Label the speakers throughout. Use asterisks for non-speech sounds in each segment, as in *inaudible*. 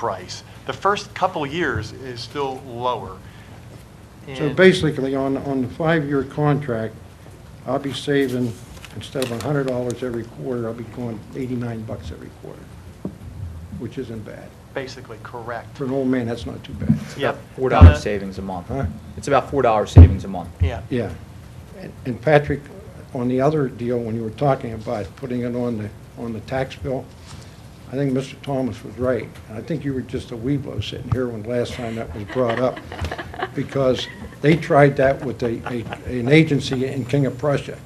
Speaker 1: price. The first couple years is still lower.
Speaker 2: So
Speaker 1: And-
Speaker 2: basically, on, on the five-year contract, I'll be saving, instead of hundred dollars every quarter, I'll be going eighty-nine bucks every quarter, which isn't bad.
Speaker 1: Basically, correct.
Speaker 2: For an old man, that's not too bad.
Speaker 1: Yep.
Speaker 3: Four
Speaker 1: About
Speaker 3: dollar
Speaker 1: a-
Speaker 3: savings a month.
Speaker 2: Huh?
Speaker 3: It's about four dollar savings a month.
Speaker 1: Yeah.
Speaker 2: Yeah. And- And Patrick, on the other deal, when you were talking about putting it on the, on the tax bill, I think Mr. Thomas was right. And I think you were just a weeblo sitting here when last time that was brought up, because they tried that with a, a- an agency in King of Prussia.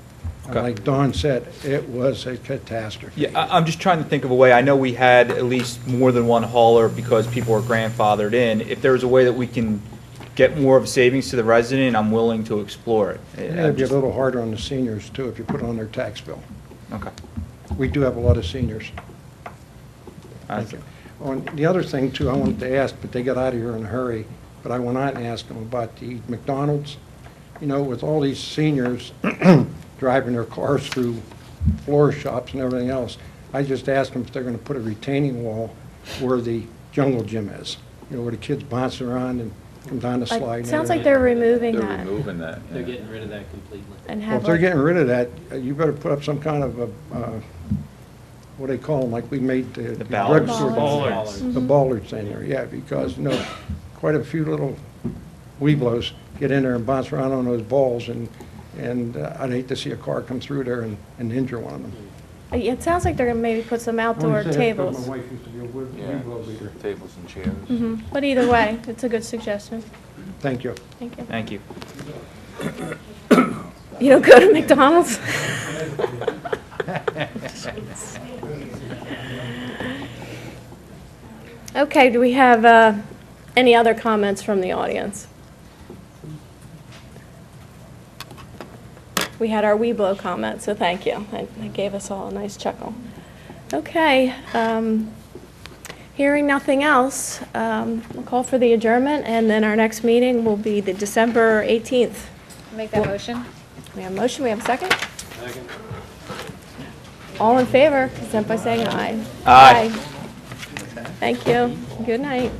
Speaker 2: And
Speaker 3: Okay.
Speaker 2: like Don said, it was a catastrophe.
Speaker 3: Yeah, I, I'm just trying to think of a way, I know we had at least more than one hauler because people are grandfathered in. If there was a way that we can get more of savings to the resident, I'm willing to explore it.
Speaker 2: And
Speaker 3: I'm
Speaker 2: It'd be a
Speaker 3: just-
Speaker 2: little harder on the seniors, too, if you put it on their tax bill.
Speaker 3: Okay.
Speaker 2: We do have a lot of seniors. Thank you. On the other thing, too, I wanted to ask, but they got out of here in a hurry, but I went out and asked them about the McDonald's. You know, with all these seniors *clears throat* driving their cars through floor shops and everything else, I just asked them if they're going to put a retaining wall where the jungle gym is, you know, where the kids bounce around and come down the
Speaker 4: Like,
Speaker 2: slide. and
Speaker 4: Sounds like
Speaker 2: everything.
Speaker 4: they're removing
Speaker 5: They're
Speaker 4: that
Speaker 5: removing that.
Speaker 6: They're
Speaker 5: yeah.
Speaker 6: getting rid of that completely.
Speaker 4: and
Speaker 2: Well,
Speaker 4: have
Speaker 2: if they're
Speaker 4: like,
Speaker 2: getting rid of that, uh, you better put up some kind of a, uh, what do they call them, like we made the
Speaker 3: The
Speaker 2: the
Speaker 3: ballards.
Speaker 2: drugstore.
Speaker 6: Ballards.
Speaker 4: Mm-hmm.
Speaker 2: The ballards in there, yeah, because, you know, quite a few little weeblos get in there and bounce around on those balls, and, and uh, I'd hate to see a car come through there and, and injure one of them.
Speaker 4: uh, it sounds like they're gonna maybe put some outdoor tables.
Speaker 2: My wife used to be a
Speaker 5: Yeah,
Speaker 2: weeblo leader.
Speaker 5: tables and chairs.
Speaker 4: Mhm. But either way, it's a good suggestion.
Speaker 2: Thank you.
Speaker 4: Thank you.
Speaker 3: Thank you.
Speaker 4: You don't go to McDonald's? Okay, do we have uh, any other comments from the audience? We had our Weeblo comment, so thank you. That that gave us all a nice chuckle. Okay, um, hearing nothing else, um, we'll call for the adjournment, and then our next meeting will be the December 18th.
Speaker 7: Make that motion?
Speaker 4: We have a motion, we have a second? Second. All in favor, consent by saying aye.
Speaker 3: Aye.
Speaker 4: Thank you, good night.